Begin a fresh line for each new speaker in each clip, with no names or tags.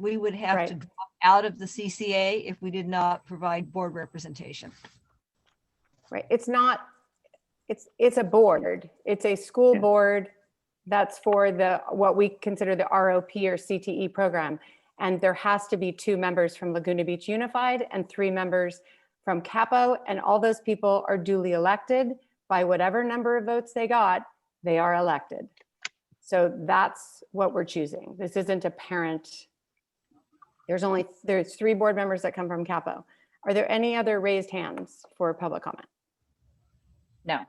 we would have to
Right.
drop out of the CCA if we did not provide board representation.
Right, it's not, it's, it's a board, it's a school
Yeah.
board that's for the, what we consider the ROP or CTE program. And there has to be two members from Laguna Beach Unified and three members from Capo. And all those people are duly elected by whatever number of votes they got, they are elected. So that's what we're choosing. This isn't a parent. There's only, there's three board members that come from Capo. Are there any other raised hands for public comment?
No.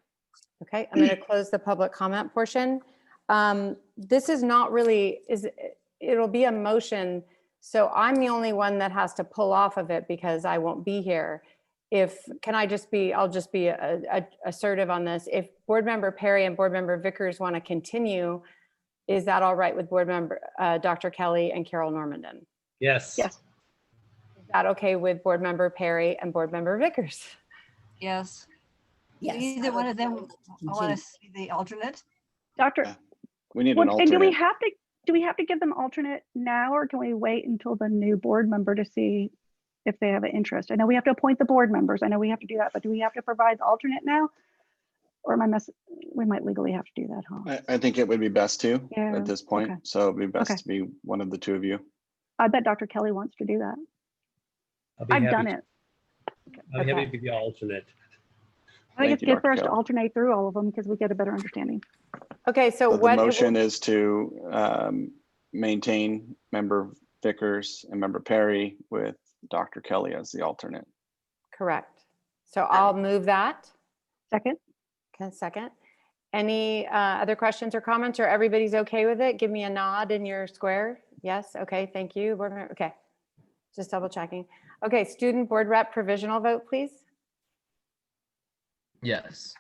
Okay, I'm going to close the public comment portion. Um, This is not really, is, it'll be a motion. So I'm the only one that has to pull off of it because I won't be here. If, can I just be, I'll just be a- a- assertive on this. If Board Member Perry and Board Member Vickers want to continue, is that all right with Board Member, uh, Dr. Kelly and Carol Normandin?
Yes.
Yes.
Is that okay with Board Member Perry and Board Member Vickers?
Yes. Do
Yes.
Either
I
one
would
of them,
vote
I want
continue.
to see the alternate.
Doctor,
We need an
well, and do we
alternate.
have to, do we have to give them alternate now or can we wait until the new board member to see if they have an interest? I know we have to appoint the board members. I know we have to do that, but do we have to provide the alternate now? Or am I mess, we might legally have to do that, huh?
I, I think it would be best to
Yeah,
at this point.
okay.
So it'd be
Okay.
best to be one of the two of you.
I bet Dr. Kelly wants to do that.
I'll be
I've
happy
done
to-
it.
I'll be happy
Okay.
to be the alternate.
I think
Thank
it's
you,
good
Dr.
for us to
Kelly.
alternate through all of them because we get a better understanding.
Okay, so
So
what?
the
it will-
motion is to um, maintain member Vickers and member Perry with Dr. Kelly as the alternate.
Correct. So I'll move that.
Second,
Can I second? Any uh, other questions or comments, or everybody's okay with it? Give me a nod in your square. Yes, okay, thank you. Board member, okay. Just double checking. Okay, student board rep provisional vote, please.
Yes.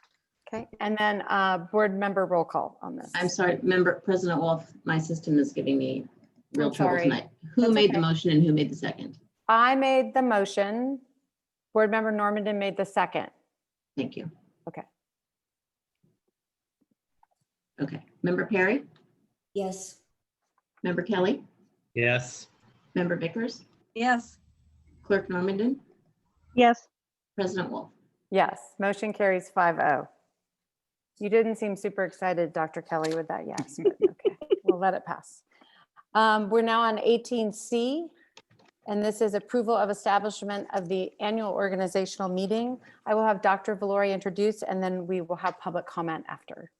Okay, and then uh, board member roll call on this.
I'm sorry, member, President Wolf, my system is giving me real
I'm
trouble
sorry.
tonight. Who
That's
made
okay.
the motion and who made the second?
I made the motion. Board member Normandin made the second.
Thank you.
Okay.
Okay, member Perry,
Yes.
member Kelly,
Yes.
member Vickers,
Yes.
clerk Normandin,
yes.
President Wolf.
Yes, motion carries 5-0. You didn't seem super excited, Dr. Kelly, with that yes, but okay, we'll let it pass. Um, We're now on 18C, and this is approval of establishment of the annual organizational meeting. I will have Dr. Valori introduce, and then we will have public comment after.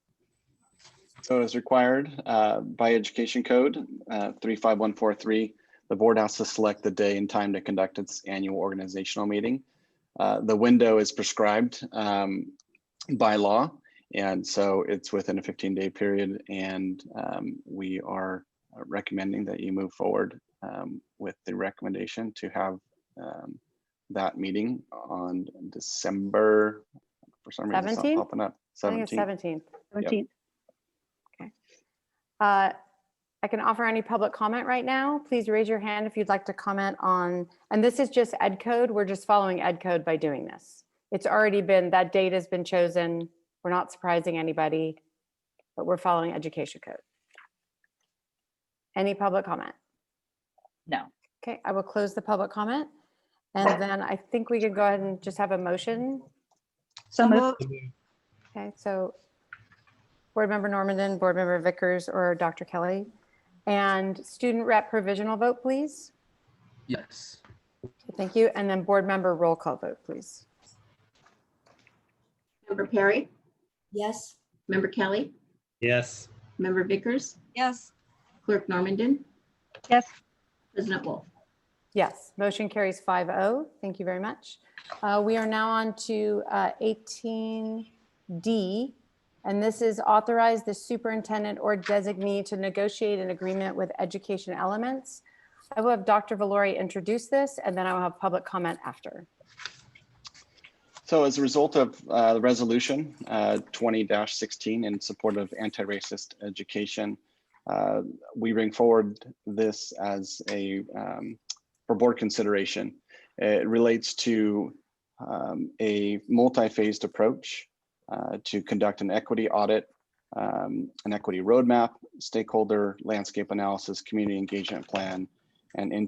So as required uh, by Education Code uh, 35143, the board has to select the day and time to conduct its annual organizational meeting. Uh, The window is prescribed um, by law, and so it's within a 15-day period, and um, we are recommending that you move forward um, with the recommendation to have um, that meeting on December, for some reason, it's not
17?
popping up.
I think it's
17th.
17th.
Seventeenth.
Uh, I can offer any public comment right now. Please raise your hand if you'd like to comment on, and this is just ed code. We're just following ed code by doing this. It's already been, that date has been chosen. We're not surprising anybody, but we're following education code. Any public comment?
No.
Okay, I will close the public comment. And then I think we could go ahead and just have a motion.
So
moved.
moved.
Okay, so Board Member Normandin, Board Member Vickers, or Dr. Kelly. And student rep provisional vote, please.
Yes.
Thank you. And then board member roll call vote, please.
Member Perry,
Yes.
member Kelly,
Yes.
member Vickers,
Yes.
clerk Normandin,
Yes,
President Wolf.
Yes, motion carries 5-0. Thank you very much. Uh, We are now on to uh, eighteen D. And this is authorize the superintendent or designee to negotiate an agreement with education elements. I will have Dr. Valori introduce this and then I will have public comment after.
So as a result of uh, the resolution uh, twenty sixteen in support of anti-racist education, uh, we bring forward this as a um, for board consideration. It relates to um, a multi-phased approach uh, to conduct an equity audit, um, an equity roadmap, stakeholder landscape analysis, community engagement plan, and into